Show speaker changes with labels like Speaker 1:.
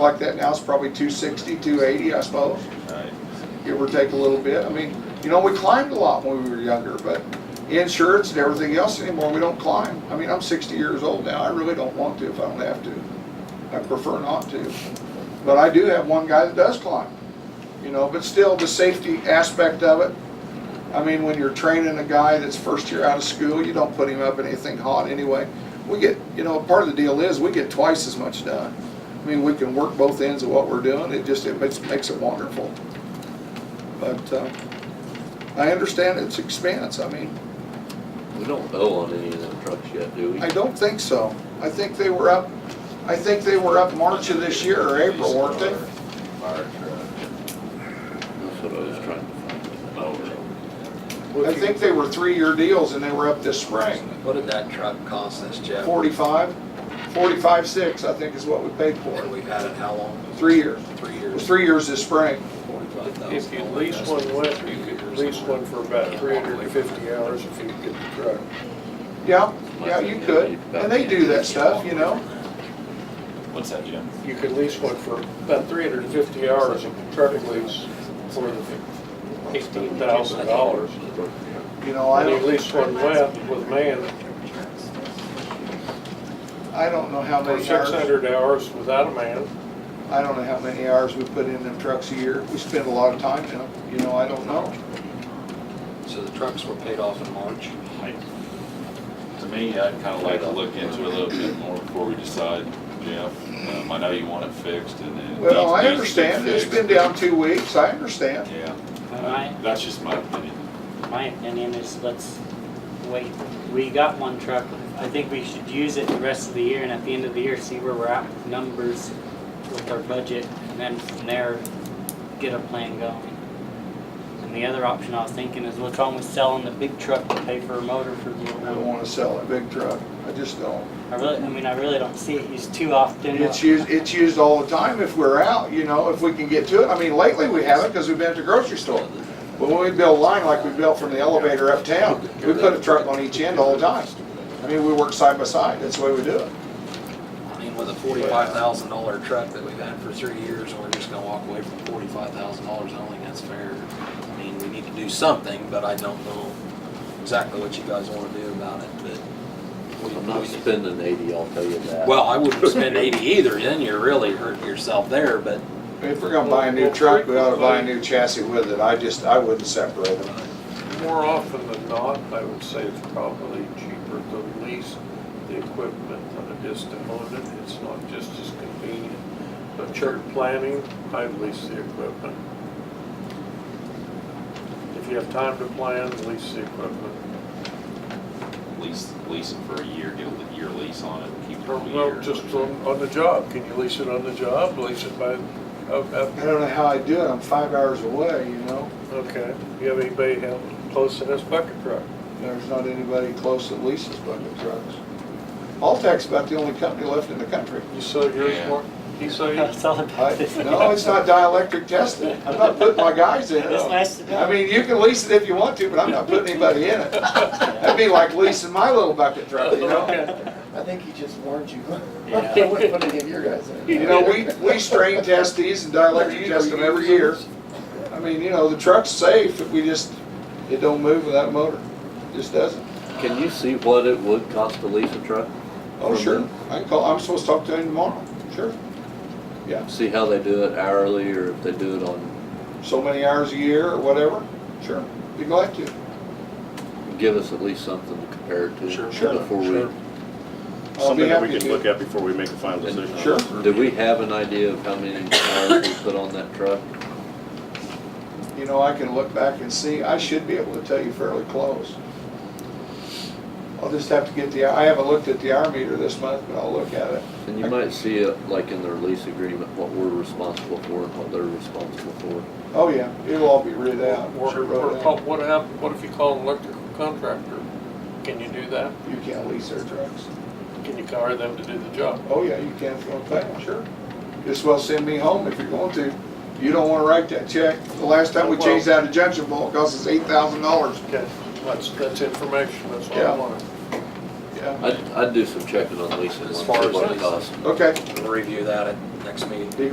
Speaker 1: like that now, it's probably 260, 280, I suppose,
Speaker 2: Right.
Speaker 1: give or take a little bit. I mean, you know, we climbed a lot when we were younger, but insurance and everything else anymore, we don't climb. I mean, I'm 60 years old now, I really don't want to if I don't have to. I prefer not to. But I do have one guy that does climb, you know, but still, the safety aspect of it, I mean, when you're training a guy that's first year out of school, you don't put him up in anything hot anyway. We get, you know, part of the deal is we get twice as much done. I mean, we can work both ends of what we're doing. It just, it makes, makes it wonderful. But, uh, I understand its expense. I mean,
Speaker 3: We don't owe on any of them trucks yet, do we?
Speaker 1: I don't think so. I think they were up, I think they were up March of this year or April, weren't they?
Speaker 2: Fire truck.
Speaker 3: That's what I was trying to find. out.
Speaker 1: I think they were three-year deals and they were up this spring.
Speaker 4: What did that truck cost us, Jeff?
Speaker 1: Forty-five, forty-five, six, I think is what we paid for
Speaker 4: And
Speaker 1: it.
Speaker 4: we've had it how long?
Speaker 1: Three years.
Speaker 4: Three
Speaker 1: It was
Speaker 4: years.
Speaker 1: three years this spring.
Speaker 5: If you lease one with, you could lease one for about three hundred and fifty hours if you get the truck.
Speaker 1: Yeah, yeah, you could. And they do that stuff, you know?
Speaker 2: What's that, Jim?
Speaker 5: You could lease one for about three hundred and fifty hours of truck lease for eighteen thousand dollars.
Speaker 1: You know, I
Speaker 5: And you
Speaker 1: don't,
Speaker 5: lease one left with man
Speaker 1: I don't know how
Speaker 5: for
Speaker 1: many
Speaker 5: six
Speaker 1: hours,
Speaker 5: hundred hours without a man.
Speaker 1: I don't know how many hours we put in them trucks a year. We spend a lot of time in them, you know, I don't know.
Speaker 4: So the trucks were paid off in March.
Speaker 2: I- To me, I'd kind of like to look into it a little bit more before we decide, Jeff. Um, I know you want it fixed and then.
Speaker 1: Well, I
Speaker 2: needs- needs to be
Speaker 1: understand. It's been
Speaker 2: fixed.
Speaker 1: down two weeks. I understand.
Speaker 2: Yeah,
Speaker 6: My,
Speaker 2: that's just my opinion.
Speaker 6: my opinion is let's wait. We got one truck. I think we should use it the rest of the year and at the end of the year, see where we're at with numbers with our budget and then from there, get a plan going. And the other option I was thinking is what's wrong with selling the big truck to pay for a motor for the little
Speaker 1: I don't
Speaker 6: one?
Speaker 1: want to sell a big truck. I just don't.
Speaker 6: I really, I mean, I really don't see it used too often.
Speaker 1: It's used, it's used all the time if we're out, you know, if we can get to it. I mean, lately we haven't because we've been at the grocery store. But when we build a line like we built from the elevator uptown, we put a truck on each end all the time. I mean, we work side by side. That's the way we do it.
Speaker 4: I mean, with a forty-five thousand dollar truck that we've had for three years, we're just gonna walk away from forty-five thousand dollars. I don't think that's fair. I mean, we need to do something, but I don't know exactly what you guys wanna do about it, but. we-
Speaker 3: I'm not
Speaker 4: we-
Speaker 3: spending eighty, I'll tell you that.
Speaker 4: Well, I wouldn't spend eighty either, then you're really hurting yourself there, but
Speaker 1: If we're gonna buy a new truck, we ought to buy a new chassis with it. I just, I wouldn't separate them.
Speaker 5: More often than not, I would say it's probably cheaper to lease the equipment than it is to own it. It's not just as convenient. But church planning, I lease the equipment. If you have time to plan, lease the equipment.
Speaker 2: Lease, lease it for a year, get a year lease on it, keep it
Speaker 5: Or,
Speaker 2: for a year.
Speaker 5: well, just on, on the job. Can you lease it on the job? Lease it by, oh, up- up-
Speaker 1: I don't know how I do it. I'm five hours away, you know?
Speaker 5: okay. You have anybody have close to this bucket truck?
Speaker 1: There's not anybody close that leases bucket trucks. Altech's about the only company left in the country.
Speaker 5: You sell yours,
Speaker 2: Yeah.
Speaker 5: Mark? You sell yours?
Speaker 6: It's all
Speaker 1: I,
Speaker 6: about this.
Speaker 1: no, it's not dielectric tested. I'm not putting my guys in
Speaker 6: It's
Speaker 1: it.
Speaker 6: nice to know.
Speaker 1: I mean, you can lease it if you want to, but I'm not putting anybody in it. That'd be like leasing my little bucket truck, you know?
Speaker 7: I think he just warned you.
Speaker 6: Yeah.
Speaker 7: I wouldn't put any of your guys in.
Speaker 1: You know, we, we strain test these and dielectric test them every year. I mean, you know, the truck's safe, we just, it don't move without a motor. Just doesn't.
Speaker 3: Can you see what it would cost to lease a truck?
Speaker 1: Oh, sure. I can call, I'm supposed to talk to him tomorrow. Sure.
Speaker 3: See how they do it hourly or if they do it on,
Speaker 1: so many hours a year or whatever? Sure. Be glad to.
Speaker 3: give us at least something to compare it to.
Speaker 4: Sure,
Speaker 1: sure,
Speaker 3: Before
Speaker 1: sure.
Speaker 3: we,
Speaker 1: I'll be
Speaker 8: Something that we
Speaker 1: happy
Speaker 8: could
Speaker 1: to.
Speaker 8: look at before we make a final decision.
Speaker 1: Sure.
Speaker 3: do we have an idea of how many hours we put on that truck?
Speaker 1: You know, I can look back and see, I should be able to tell you fairly close. I'll just have to get the, I haven't looked at the hour meter this month, but I'll look at it.
Speaker 3: And you might see it like in their lease agreement, what we're responsible for and what they're responsible for.
Speaker 1: Oh, yeah, it'll all be read out.
Speaker 5: Or,
Speaker 1: Sure,
Speaker 5: or
Speaker 1: wrote
Speaker 5: call-
Speaker 1: down.
Speaker 5: what hap, what if you call an electrical contractor? Can you do that?
Speaker 1: You can't lease their trucks.
Speaker 5: Can you hire them to do the job?
Speaker 1: Oh, yeah, you can if you want to pay them, sure. Just well send me home if you're going to. You don't want to write that check. The last time we
Speaker 5: Well-
Speaker 1: changed out a junction bolt, it cost us eight thousand dollars.
Speaker 5: Okay, that's, that's information, that's all
Speaker 1: Yeah.
Speaker 5: I wanted.
Speaker 1: Yeah,
Speaker 3: I'd, I'd do some checking on leasing,
Speaker 4: As
Speaker 3: on
Speaker 4: far as
Speaker 3: what it
Speaker 4: leasing.
Speaker 3: costs.
Speaker 1: okay.
Speaker 4: we'll review that at next meeting.